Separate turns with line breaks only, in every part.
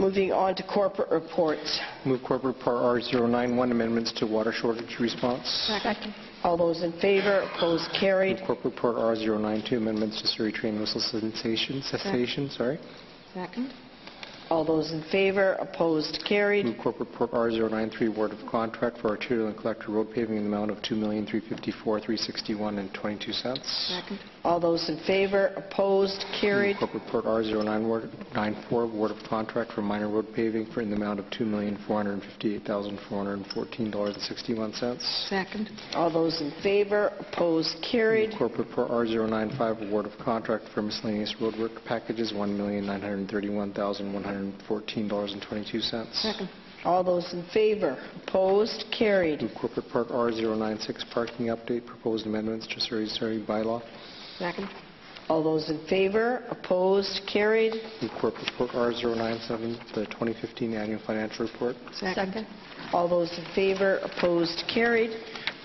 Moving on to corporate reports.
Move corporate par R091 amendments to water shortage response.
Second.
All those in favor, opposed, carried.
Move corporate par R092 amendments to Surrey train whistle cessation, cessation, sorry.
Second.
All those in favor, opposed, carried.
Move corporate par R093 award of contract for arterial and collector road paving in the amount of $2,354,361.22.
Second.
All those in favor, opposed, carried.
Move corporate par R094 award of contract for minor road paving for in the amount of $2,458,414.61.
Second.
All those in favor, opposed, carried.
Corporate for R095, award of contract for miscellaneous roadwork packages, $1,931,114.22.
Second.
All those in favor, opposed, carried.
Move Corporate Part R096, parking update, proposed amendments to Surrey Surrey bylaw.
Second.
All those in favor, opposed, carried.
Move Corporate Part R097, the 2015 annual financial report.
Second.
All those in favor, opposed, carried.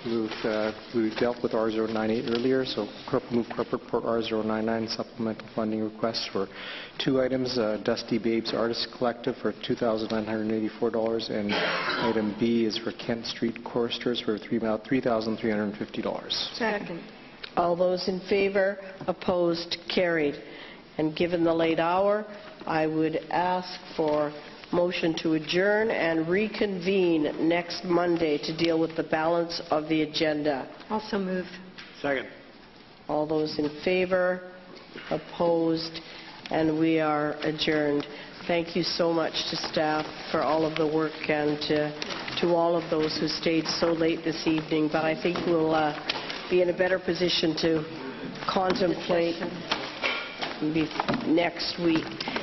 We've, uh, we dealt with R098 earlier, so corp- move corporate report R099 supplemental funding requests for two items, uh, Dusty Babes Artist Collective for $2,984, and item B is for Kent Street Choristers for three mil- $3,350.
Second.
All those in favor, opposed, carried. And given the late hour, I would ask for motion to adjourn and reconvene next Monday to deal with the balance of the agenda.
Also moved.
Second.
All those in favor, opposed, and we are adjourned. Thank you so much to staff for all of the work and to, to all of those who stayed so late this evening, but I think we'll uh, be in a better position to contemplate be- next week.